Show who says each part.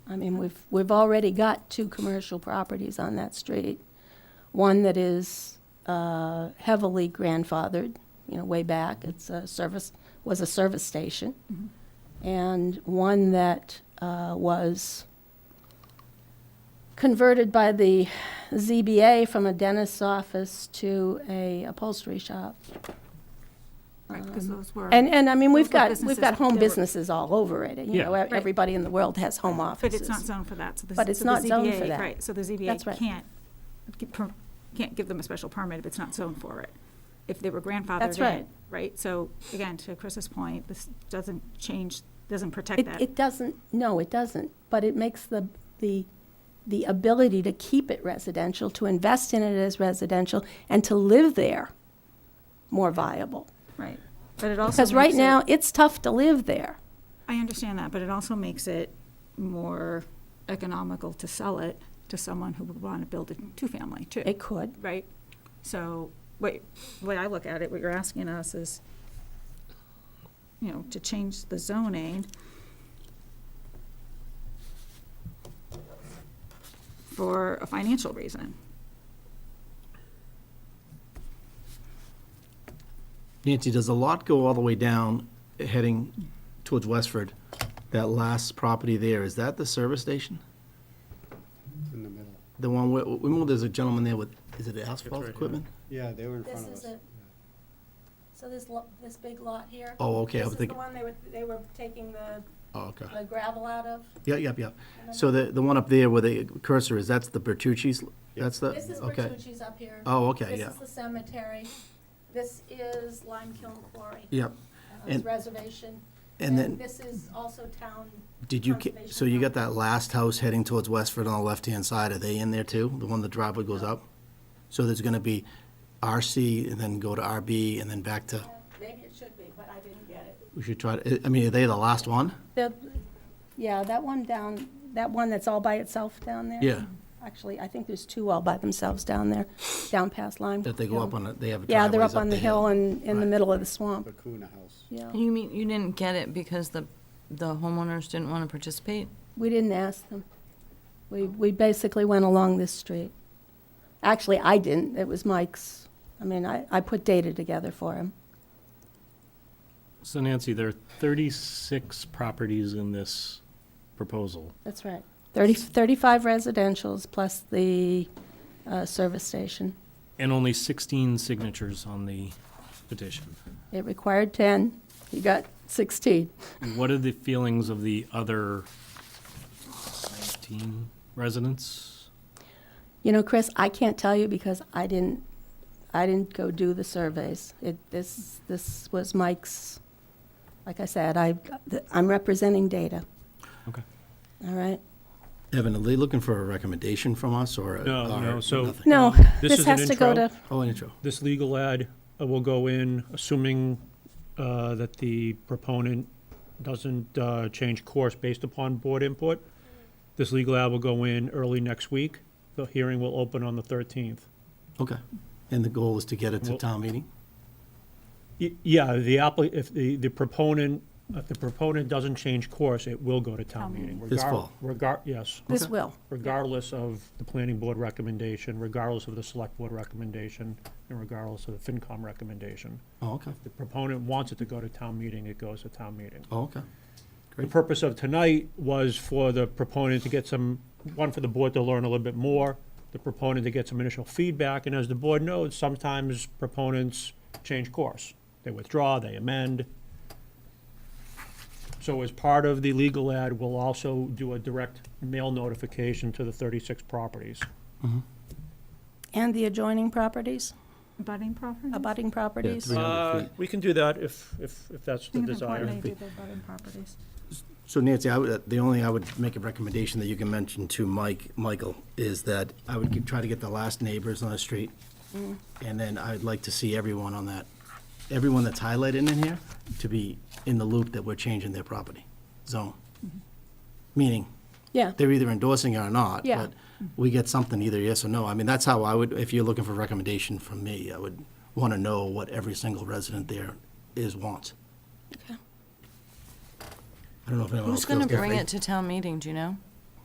Speaker 1: I mean, we've, we've already got two commercial properties on that street. One that is uh, heavily grandfathered, you know, way back, it's a service, was a service station.
Speaker 2: Mm-hmm.
Speaker 1: And one that uh, was converted by the ZBA from a dentist's office to a upholstery shop. Um,
Speaker 2: Right, because those were.
Speaker 1: And, and I mean, we've
Speaker 2: Those
Speaker 1: got,
Speaker 2: were
Speaker 1: we've got
Speaker 2: businesses
Speaker 1: home
Speaker 2: that were-
Speaker 1: businesses all over it, you
Speaker 3: Yeah.
Speaker 1: know, e-
Speaker 2: Right.
Speaker 1: everybody in the world has home offices.
Speaker 2: But it's not zoned for that, so the.
Speaker 1: But it's
Speaker 2: so the
Speaker 1: not zoned for
Speaker 2: ZBA
Speaker 1: that.
Speaker 2: Right, so the
Speaker 1: That's right.
Speaker 2: ZBA can't, gi- per- can't give them a special permit if it's not zoned for it. If they were grandfathered
Speaker 1: That's right.
Speaker 2: in, right? So again, to Chris's point, this doesn't change, doesn't protect
Speaker 1: It,
Speaker 2: that.
Speaker 1: it doesn't, no, it doesn't, but it makes the, the, the ability to keep it residential, to invest in it as residential, and to live there more viable.
Speaker 2: Right. But it also.
Speaker 1: Because right
Speaker 2: makes it-
Speaker 1: now, it's tough to live there.
Speaker 2: I understand that, but it also makes it more economical to sell it to someone who would want to build a two-family too.
Speaker 1: It could.
Speaker 2: right? So, what, what I look at it, what you're asking us is, you know, to change the zoning for a financial reason.
Speaker 4: Nancy, does the lot go all the way down, heading towards Westford? That last property there, is that the service station?
Speaker 5: In the middle.
Speaker 4: The one where, remember there's a gentleman there with, is it asphalt equipment?
Speaker 5: Yeah, they were in
Speaker 1: This
Speaker 5: front of
Speaker 1: is
Speaker 5: us.
Speaker 1: it. So this, this big lot here?
Speaker 4: Oh, okay, I was thinking,
Speaker 1: one they were, they were taking the,
Speaker 4: oh, okay.
Speaker 1: gravel out of?
Speaker 4: Yep, yep, yep. So the, the one up there where the cursor is, that's the Bertucci's, that's the, Uh, okay.
Speaker 1: up here.
Speaker 4: Oh, okay, yeah,
Speaker 1: the cemetery. This is Lime Kiln Quarry. uh,
Speaker 4: yep. And-
Speaker 1: reservation.
Speaker 4: And then,
Speaker 1: this is also town.
Speaker 4: did you, ca-
Speaker 1: conservation
Speaker 4: so you got
Speaker 1: property.
Speaker 4: that last house heading towards Westford on the left-hand side, are they in there too? The one the driveway goes up? So there's gonna be RC and then go to RB and then back to?
Speaker 1: Maybe it should be, but I didn't get it.
Speaker 4: We should try, to I mean, are they the last one?
Speaker 1: yeah, that one down, that one that's all by itself down there?
Speaker 4: Yeah.
Speaker 1: Actually, I think there's two all by themselves down there, down past Lime.
Speaker 4: That they go up on, a- they have a
Speaker 1: Yeah, they're
Speaker 4: driveways
Speaker 1: up on the hill and in the
Speaker 4: Right.
Speaker 1: middle of the swamp,
Speaker 5: The Kuna House.
Speaker 1: yeah.
Speaker 6: You mean, you didn't get it because the, the homeowners didn't want to participate?
Speaker 1: We didn't ask them. We, we basically went along this street. Actually, I didn't, it was Mike's. I mean, I, I put data together for him.
Speaker 3: So Nancy, there are 36 properties in this proposal.
Speaker 1: That's right. 30, 35 residential's plus the uh, service station.
Speaker 3: And only 16 signatures on the petition.
Speaker 1: It required 10, you got 16.
Speaker 3: What are the feelings of the other 19 residents?
Speaker 1: You know, Chris, I can't tell you because I didn't, I didn't go do the surveys. It, this, this was Mike's, like I said, I, I'm representing data,
Speaker 3: Okay.
Speaker 1: all right?
Speaker 4: Evan, are they looking for a recommendation from us or? a-
Speaker 7: No,
Speaker 4: or
Speaker 7: no, so-
Speaker 4: nothing?
Speaker 1: No,
Speaker 7: Um, this
Speaker 1: this
Speaker 7: is an
Speaker 1: has to go
Speaker 7: intro.
Speaker 1: to,
Speaker 4: Oh, an intro.
Speaker 7: This legal ad uh, will go in, assuming uh, that the proponent doesn't uh, change course based upon board input. This legal ad will go in early next week. The hearing will open on the 13th.
Speaker 4: Okay. And the goal is to get it to
Speaker 7: Well-
Speaker 4: town meeting?
Speaker 7: Y- Yeah, the appli, if the, the proponent, if the proponent doesn't change course, it will go to
Speaker 2: Town
Speaker 7: town meeting.
Speaker 4: This
Speaker 7: regar-
Speaker 4: fall.
Speaker 7: Regar, yes,
Speaker 1: this
Speaker 4: Okay.
Speaker 1: will,
Speaker 7: regardless of the planning board recommendation, regardless of the select board recommendation, and regardless of the FinCom recommendation.
Speaker 4: Oh, okay.
Speaker 7: the proponent wants it to go to town meeting, it goes to town meeting.
Speaker 4: Oh, okay.
Speaker 7: The purpose of tonight was for the proponent to get some, one, for the board to learn a little bit more, the proponent to get some initial feedback, and as the board knows, sometimes proponents change course. They withdraw, they amend. So as part of the legal ad, we'll also do a direct mail notification to the 36 properties.
Speaker 1: and the adjoining properties,
Speaker 2: Budding properties?
Speaker 1: abutting
Speaker 4: Yeah,
Speaker 1: properties.
Speaker 4: 300 feet.
Speaker 7: Uh, we can do that if, if, if that's
Speaker 2: I
Speaker 7: the
Speaker 2: think it's
Speaker 7: desire.
Speaker 2: important they do the budding properties.
Speaker 4: So Nancy, I would, uh, the only, I would make a recommendation that you can mention to Mike, Michael, is that I would get- try to get the last neighbors on the street.
Speaker 1: Mm.
Speaker 4: And then I'd like to see everyone on that, everyone that's highlighted in here to be in the loop that we're changing their property zone. Meaning,
Speaker 1: Mm-hmm. Yeah,
Speaker 4: they're either endorsing it or not.
Speaker 1: Yeah.
Speaker 4: But we get something either yes or no. I mean, that's how I would, if you're looking for a recommendation from me, I would want to know what every single resident there is, wants.
Speaker 1: Okay.
Speaker 4: I don't know if anyone else feels
Speaker 6: Who's going
Speaker 4: that
Speaker 6: to bring
Speaker 4: way.
Speaker 6: it to town meeting, do you know?